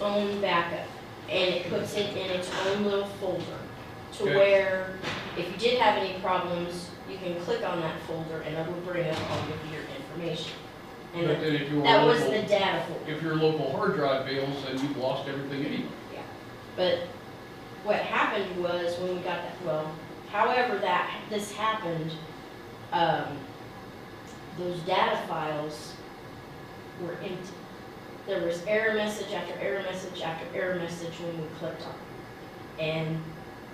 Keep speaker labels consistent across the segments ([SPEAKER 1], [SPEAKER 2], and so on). [SPEAKER 1] own backup, and it puts it in its own little folder, to
[SPEAKER 2] Okay.
[SPEAKER 1] where if you did have any problems, you can click on that folder and it will bring up all of your information.
[SPEAKER 2] But
[SPEAKER 1] And that-
[SPEAKER 2] then if your
[SPEAKER 1] that was the
[SPEAKER 2] local,
[SPEAKER 1] data folder,
[SPEAKER 2] if your local hard drive fails, then you've lost everything anyway.
[SPEAKER 1] but what happened was when we got that, well, however that, this happened, um, those data files were empty. There was error message after error message after error message when we clicked on it. And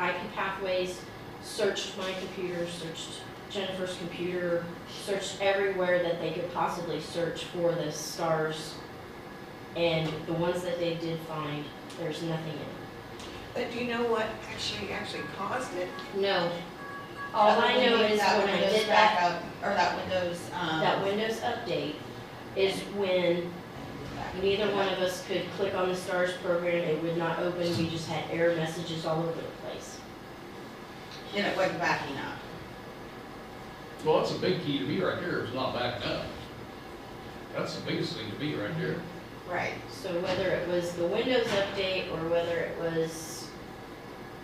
[SPEAKER 1] IP Pathways searched my computer, searched Jennifer's computer, searched everywhere that they could possibly search for the stars. And the ones that they did find, there's nothing in it.
[SPEAKER 3] But do you know what actually, actually caused it?
[SPEAKER 1] No. All I know is
[SPEAKER 4] that
[SPEAKER 1] when I
[SPEAKER 4] Windows
[SPEAKER 1] did that,
[SPEAKER 4] backup, Or that Windows, um.
[SPEAKER 1] that uh-huh. Windows update is when neither one of us could click on the STARS program, it would not open, we just had error messages all over the place.
[SPEAKER 4] Then it wasn't backing up.
[SPEAKER 2] Well, that's a big key to me right there, is not backing up. That's the biggest thing to me right there.
[SPEAKER 4] Right.
[SPEAKER 1] So whether it was the Windows update or whether it was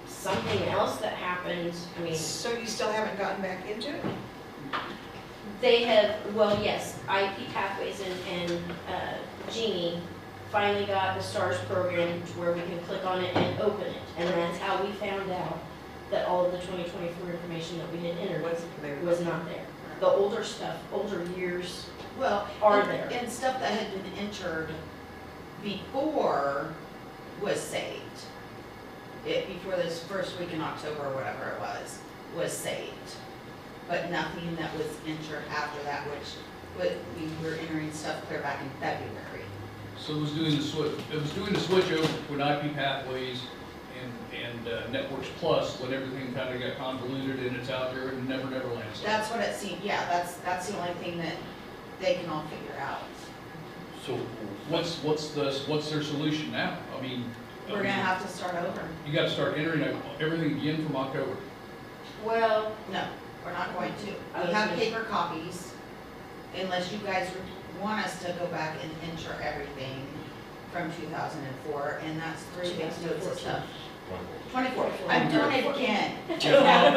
[SPEAKER 1] something else that happened, I mean,
[SPEAKER 3] So you still haven't gotten back into it?
[SPEAKER 1] They have, well, yes, IP Pathways and, and uh, Genie finally got the STARS program to where we can click on it and open it. And that's how we found out that all of the 2024 information that we had entered
[SPEAKER 3] Was it there?
[SPEAKER 1] was not there. The older stuff, older years
[SPEAKER 4] Well.
[SPEAKER 1] are
[SPEAKER 4] and-
[SPEAKER 1] there.
[SPEAKER 4] And stuff that had been entered before was saved. It, before this first week in October, or whatever it was, was saved. But nothing that was entered after that, which, would- we were entering stuff clear back in February.
[SPEAKER 2] So it was doing the switch, it was doing the switch over when IP Pathways and, and uh, Networks Plus, when everything kind of got convoluted and it's out there and never, never lands.
[SPEAKER 4] That's what it seemed, yeah, that's, that's the only thing that they can all figure out.
[SPEAKER 2] So what's, what's the, what's their solution now? I mean,
[SPEAKER 4] We're gonna
[SPEAKER 2] you
[SPEAKER 4] have to start over.
[SPEAKER 2] gotta start entering everything again from October.
[SPEAKER 1] Well,
[SPEAKER 4] No, we're not going to.
[SPEAKER 1] Okay.
[SPEAKER 4] We have paper copies, unless you guys want us to go back and enter everything from two thousand and four, and that's three big notes of stuff. Twenty-four, I'm doing it again.
[SPEAKER 2] From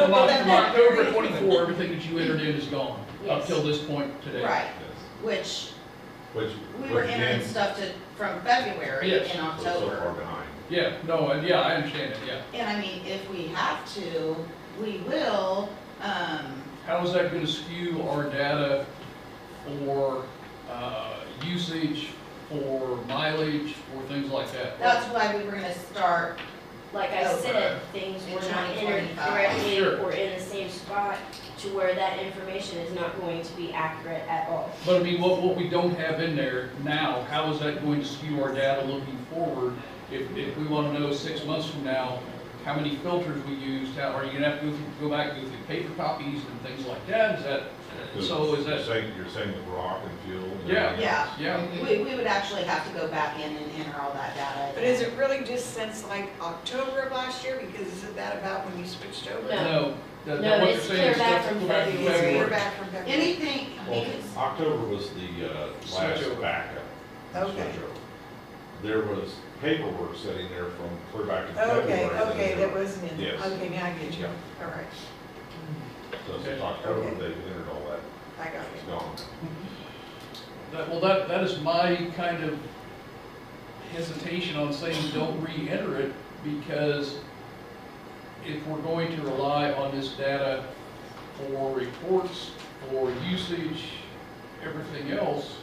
[SPEAKER 2] from October twenty-four, everything that you entered in is gone, up
[SPEAKER 1] Yes.
[SPEAKER 2] till this point today.
[SPEAKER 4] Right,
[SPEAKER 5] Yes.
[SPEAKER 4] which,
[SPEAKER 5] Which,
[SPEAKER 4] we were
[SPEAKER 5] which
[SPEAKER 4] entering
[SPEAKER 5] means
[SPEAKER 4] stuff to, from February
[SPEAKER 2] Yes.
[SPEAKER 4] and
[SPEAKER 5] we're so far
[SPEAKER 4] October.
[SPEAKER 5] behind.
[SPEAKER 2] Yeah, no, and yeah, I understand it, yeah.
[SPEAKER 4] And I mean, if we have to, we will, um,
[SPEAKER 2] How is that gonna skew our data for, uh, usage, for mileage, for things like that?
[SPEAKER 4] that's why we were gonna start,
[SPEAKER 1] like I said, things
[SPEAKER 4] In
[SPEAKER 1] were not entered
[SPEAKER 4] 2025.
[SPEAKER 1] correctly
[SPEAKER 2] Sure.
[SPEAKER 1] or in the same spot to where that information is not going to be accurate at all.
[SPEAKER 2] But I mean, what, what we don't have in there now, how is that going to skew our data looking forward? If, if we wanna know six months from now, how many filters we used, how, are you gonna have to go through- go back, go through paper copies and things like that? Is that, so is
[SPEAKER 5] You're
[SPEAKER 2] that,
[SPEAKER 5] saying, you're saying the rock and fuel and
[SPEAKER 2] Yeah.
[SPEAKER 5] everything
[SPEAKER 4] yeah.
[SPEAKER 5] else.
[SPEAKER 2] yeah?
[SPEAKER 4] We, we would actually have to go back in and enter all that data.
[SPEAKER 3] But is it really just since like October of last year? Because isn't that about when you switched over?
[SPEAKER 1] No.
[SPEAKER 2] No,
[SPEAKER 1] No,
[SPEAKER 2] that, that what you're
[SPEAKER 1] it's
[SPEAKER 2] saying is
[SPEAKER 1] clear back
[SPEAKER 2] that's
[SPEAKER 1] from
[SPEAKER 2] back to
[SPEAKER 1] February.
[SPEAKER 3] We're
[SPEAKER 2] February.
[SPEAKER 3] back from February.
[SPEAKER 4] Anything,
[SPEAKER 5] Well,
[SPEAKER 4] because,
[SPEAKER 5] October was the, uh, last
[SPEAKER 2] Switchover.
[SPEAKER 5] backup.
[SPEAKER 3] Okay.
[SPEAKER 5] switchover. There was paperwork sitting there from clear back in February.
[SPEAKER 3] Okay,
[SPEAKER 5] and
[SPEAKER 3] okay,
[SPEAKER 5] then
[SPEAKER 3] that wasn't in,
[SPEAKER 5] Yes.
[SPEAKER 3] okay, now I get you,
[SPEAKER 5] Yeah.
[SPEAKER 3] all right,
[SPEAKER 5] So
[SPEAKER 2] Okay.
[SPEAKER 5] since October,
[SPEAKER 3] Okay.
[SPEAKER 5] they entered all that,
[SPEAKER 3] I got
[SPEAKER 5] it's
[SPEAKER 3] it.
[SPEAKER 5] gone.
[SPEAKER 2] That, well, that, that is my kind of hesitation on saying don't re-enter it, because if we're going to rely on this data for reports, for usage, everything else,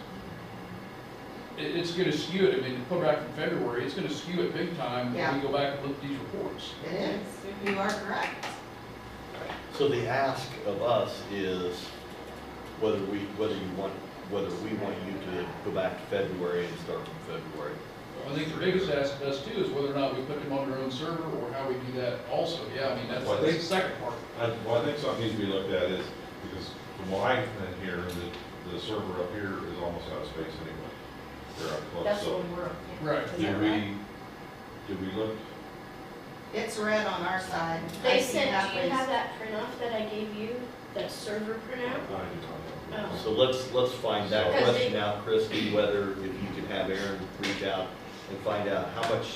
[SPEAKER 2] it, it's gonna skew it, I mean, put back in February, it's gonna skew it big time when
[SPEAKER 4] Yeah.
[SPEAKER 2] we go back and look at these reports.
[SPEAKER 4] it is, you are correct.
[SPEAKER 6] So the ask of us is whether we, whether you want, whether we want you to go back to February and start from February.
[SPEAKER 2] I think the biggest ask of us too is whether or not we put them on their own server, or how we do that also, yeah, I mean, that's,
[SPEAKER 5] Well, I
[SPEAKER 2] that's the
[SPEAKER 5] think-
[SPEAKER 2] second part.
[SPEAKER 5] I, well, I think something needs to be looked at is, because from what I can hear, the, the server up here is almost out of space anyway. They're up close,
[SPEAKER 1] That's
[SPEAKER 5] so.
[SPEAKER 1] what we're,
[SPEAKER 2] Right.
[SPEAKER 4] Is
[SPEAKER 5] Did
[SPEAKER 4] that
[SPEAKER 5] we,
[SPEAKER 4] right?
[SPEAKER 5] did we look,
[SPEAKER 4] It's red on our side. I
[SPEAKER 1] They
[SPEAKER 4] see
[SPEAKER 1] sent,
[SPEAKER 4] that
[SPEAKER 1] do you
[SPEAKER 4] was-
[SPEAKER 1] have that printout that I gave you, that server
[SPEAKER 5] I
[SPEAKER 1] printout?
[SPEAKER 5] did not
[SPEAKER 6] Oh.
[SPEAKER 5] know.
[SPEAKER 6] So let's, let's find that
[SPEAKER 5] Because
[SPEAKER 1] they-
[SPEAKER 6] question out, Christie, whether if you could have Aaron reach out and find out how much